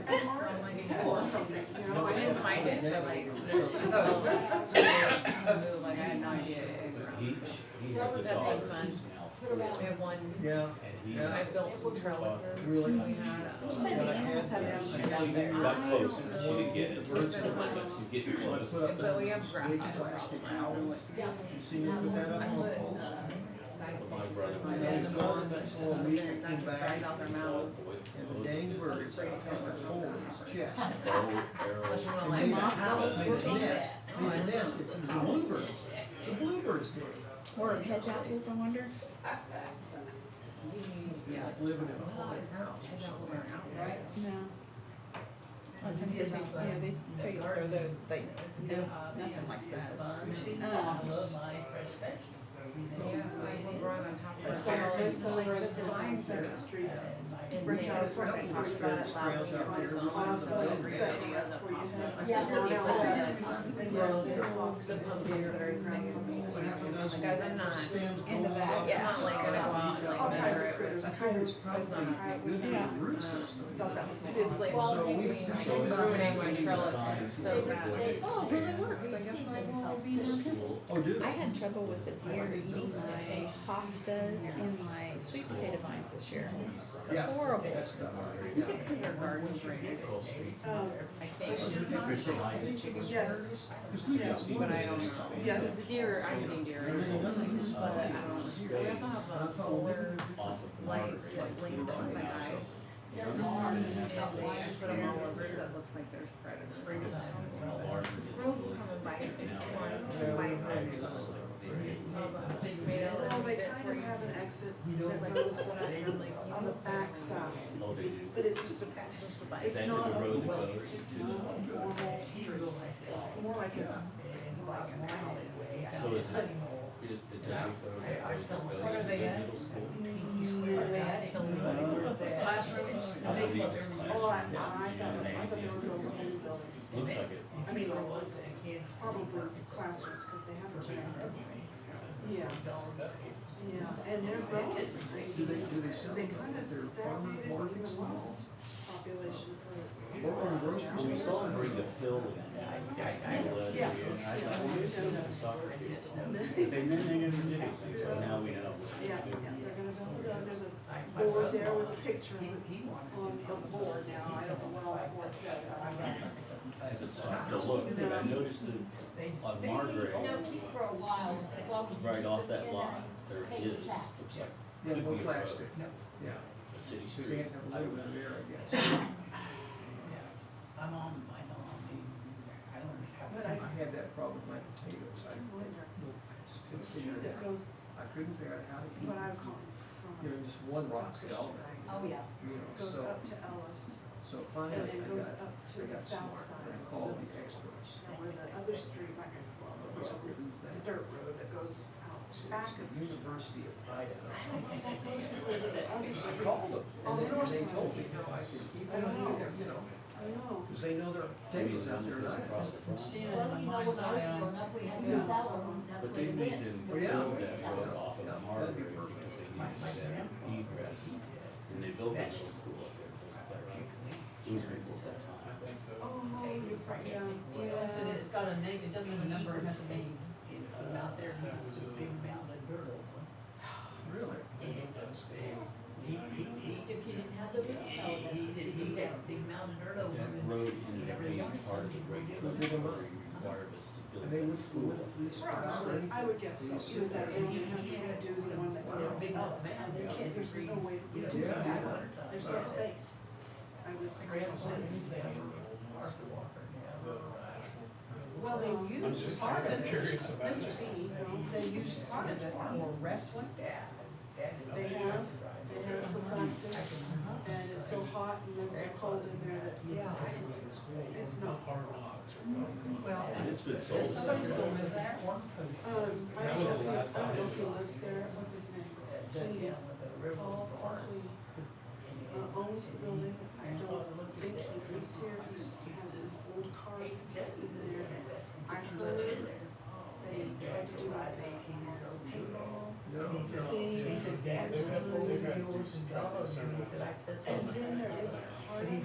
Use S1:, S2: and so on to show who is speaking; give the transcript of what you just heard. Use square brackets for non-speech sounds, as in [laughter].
S1: school or something, you know,
S2: No,
S1: I
S2: it's
S1: didn't
S2: not.
S1: find it.
S3: for like-
S1: Oh.
S3: Like, I had no idea. it
S2: But he,
S3: grew.
S2: he has a
S3: That's
S2: daughter
S3: like fun.
S2: who's now four, and
S3: We have one,
S4: Yeah,
S2: he.
S3: I
S4: Yeah.
S3: built some trellises.
S4: Really?
S3: We had, um,
S4: But I had
S2: She,
S4: this-
S2: she got close, and she didn't get it,
S4: Birds in the
S2: but
S4: window.
S2: she's getting close.
S4: Put up
S3: But we
S4: in
S3: have grass
S4: big
S3: on the
S4: plastic
S3: problem. I don't know what to do.
S4: owls. You see, you put that up
S3: I
S4: on
S3: put,
S4: a
S3: uh,
S4: post.
S2: My brother
S3: dive
S2: was
S3: my dad in the
S4: always
S3: morning,
S4: gone
S3: but
S4: for a
S3: uh,
S4: week
S3: then
S4: and
S3: that
S4: came
S3: just
S4: back.
S3: dries out their mouths.
S4: And the dang bird had a hole in his chest.
S2: Bow,
S3: Unless you
S2: arrow,
S3: wanna
S4: And made a
S3: like,
S4: house, made a nest, made a nest, it's these bluebirds. The bluebirds did. it.
S5: Or hedge apples, I wonder?
S3: yeah.
S4: Like living in a haunted house
S3: And
S4: or
S3: that was
S4: something.
S3: our outlet.
S5: No. Yeah, they tell you to throw those, like, no, nothing like that. Um,
S3: Yeah, like, we're growing on top of
S1: It's
S3: our
S1: like
S3: terrace.
S1: this over
S3: Like,
S1: in
S3: this line
S1: Center
S3: center.
S1: Street.
S3: And
S1: Right
S3: they-
S1: now, it's where they
S3: we
S1: talk
S3: talked
S4: about
S3: it loudly
S4: scratch out
S3: on
S4: there,
S3: the
S4: little
S3: phone.
S4: ones
S3: So
S4: that
S3: every
S4: live
S3: video
S1: there.
S3: that pops up, I
S1: Yeah.
S3: said, "Look at
S1: Yeah.
S3: that." The pumpkin are very big.
S1: Well,
S4: What happened to us?
S3: Guys, I'm not
S4: Stems
S5: into
S4: growing
S5: that.
S4: up.
S3: Yeah, I'm not like gonna go out and
S1: All
S3: like
S1: kinds
S3: measure
S1: of
S3: it
S1: critters,
S3: with.
S4: I think it's probably
S1: It's on-
S4: not good for the
S5: Yeah.
S3: Um,
S4: root system.
S1: Thought that was.
S3: But it's like,
S4: So we-
S3: like
S4: so we-
S3: ruining my trellis so bad.
S5: Oh, it really works, I guess I will be more careful.
S4: Oh, do
S5: I
S4: they?
S5: had trouble with the deer eating my pastas and my sweet potato vines this year.
S4: Yeah.
S5: Horrible.
S4: That's not all
S3: I
S4: right.
S3: think it's because our garden's raised,
S1: Um,
S3: I think.
S1: Yes,
S4: Because we got
S2: Yeah.
S4: one
S3: But I don't
S4: that's-
S3: know.
S1: yes.
S3: The deer, I've seen deer,
S4: There's another one.
S3: but I don't know. We also have a solar
S2: off of
S3: lights
S2: Monterey,
S3: that blink
S2: it's
S3: on
S2: on
S3: my
S2: the
S3: eyes.
S2: outside.
S3: And they, I put them all over, so it looks like there's predators.
S2: Alarm.
S3: The squirrels will come and bite, just one, bite them. Um, They made a
S1: well,
S3: little
S1: they
S3: bit
S1: kind
S3: for
S1: of
S3: you.
S1: have an exit
S3: It's
S1: that
S3: like,
S1: goes
S3: what I am, like,
S1: on the back side,
S2: Oh, they do.
S1: but it's just a,
S3: just the
S2: Is
S3: bite.
S2: that
S1: it's
S2: just
S1: not
S2: a
S1: a,
S2: road that
S1: well,
S2: goes
S1: it's
S2: to
S1: not
S2: the-
S1: a normal street. It's more like a, like an alleyway.
S2: So is it, it, it does it go to the road that goes to the middle school?
S3: Classrooms.
S2: I believe it's classroom.
S1: Oh, I, I thought, I thought they were building a new building.
S2: Looks like it.
S1: I mean, or was it probably classrooms, cause they have a gym. Yeah. Yeah, and they're growing.
S4: Do they, do they sell
S1: They
S4: them
S1: kind
S4: at
S1: of
S4: their
S1: stagnated
S4: farmers
S1: in
S4: markets
S1: the
S4: and
S1: West
S4: all?
S1: population for.
S4: Or on grocery
S2: Well, we
S4: stores?
S2: saw him bring the fill in. I, I, I was, and
S1: yeah.
S2: I thought, well, this is the soccer field. But they, then they never did anything, so now we know. what to
S1: Yeah, yeah,
S2: do.
S1: they're gonna build it up, there's a board there with a picture of it on the board now, I don't know what all that board says, I don't know.
S2: It's like, to look, but I noticed that on Margaret,
S6: for a while,
S2: right off that lot, there is, looks like
S4: Yeah, more plastic. Yeah.
S2: a city
S4: So you
S2: street.
S4: have to have a
S2: I
S4: little
S2: would-
S4: bit of air, I
S3: [laughs]
S4: guess.
S7: I'm on, I don't, I learned how.
S1: But
S4: I
S1: I
S4: had that problem with my potatoes. I
S1: wonder,
S4: just
S1: the
S4: couldn't figure it
S1: street that
S4: out.
S1: goes,
S4: I couldn't figure out how to eat.
S1: what I've
S4: them.
S1: come
S4: You
S1: from,
S4: know, just one rock
S1: Rochester
S4: fell,
S1: Banks,
S6: Oh, yeah.
S4: you know,
S1: goes
S4: so,
S1: up to Ellis,
S4: so
S1: and
S4: finally I
S1: then goes
S4: got,
S1: up
S4: I
S1: to the
S4: got
S1: south
S4: smart.
S1: side.
S4: I called the experts.
S1: Now where the other street, like, well, there's a
S4: Who's that?
S1: dirt road that goes out back
S4: It's the
S1: of,
S4: University of Idaho.
S1: other
S4: I
S1: street,
S4: called them, and
S1: On the Oh, north
S4: they- they
S1: side.
S4: told me, no, I said, keep it
S1: I don't
S4: on
S1: know.
S4: you know,
S1: I know.
S4: because they know their potatoes out there, and I
S2: Across the front.
S6: Well, you know, when I was growing up, we had to sell them, that's
S2: But
S6: what
S2: they
S6: it
S2: need to
S6: is.
S7: Oh,
S2: build
S4: Yeah.
S2: that road off
S4: Yeah,
S2: of
S4: that'd be
S2: Marbury
S4: perfect.
S2: because they need that egress. And they built that little school up there, it was better. It was before that time.
S1: Oh, no, you're right, yeah, yeah.
S7: So it's got a name, it doesn't have a number, it has a name. Out there, big mountain bird over.
S4: really.
S7: And he, he, he,
S6: If you didn't have the roof, so
S7: he, he did, he had big mountain bird over.
S2: That
S7: and-
S2: road ended up being part of the regulatory requirements to
S4: And
S2: build
S4: they
S2: that
S4: would,
S2: school.
S4: would at least start out or
S1: I
S4: anything.
S1: would guess so, either that or you have to redo the one that goes up to Ellis, and they can't, there's no way you
S7: You know,
S1: do
S4: Yeah.
S1: that one, there's no
S7: yeah.
S1: space. I would, I would think.
S7: Well, they used part of it,
S1: Mr. Feeney, no,
S7: they used part of it for wrestling.
S1: they have, they have for practice, and it's so hot and it's so cold in there that,
S7: Yeah.
S1: it's not.
S7: Well,
S2: And it's been sold.
S7: Does somebody still live there?
S1: Um, I don't know if he, I don't know if he lives there, what's his name? Feeney, Paul, Paul Feeney. uh, owns the building. I don't think he lives here. He has some old cars and things in there. I heard they tried to do like a paintball
S4: No, no.
S1: thing.
S7: He said,
S1: And
S7: Dad, they're gonna
S1: then-
S7: And
S1: And then there is part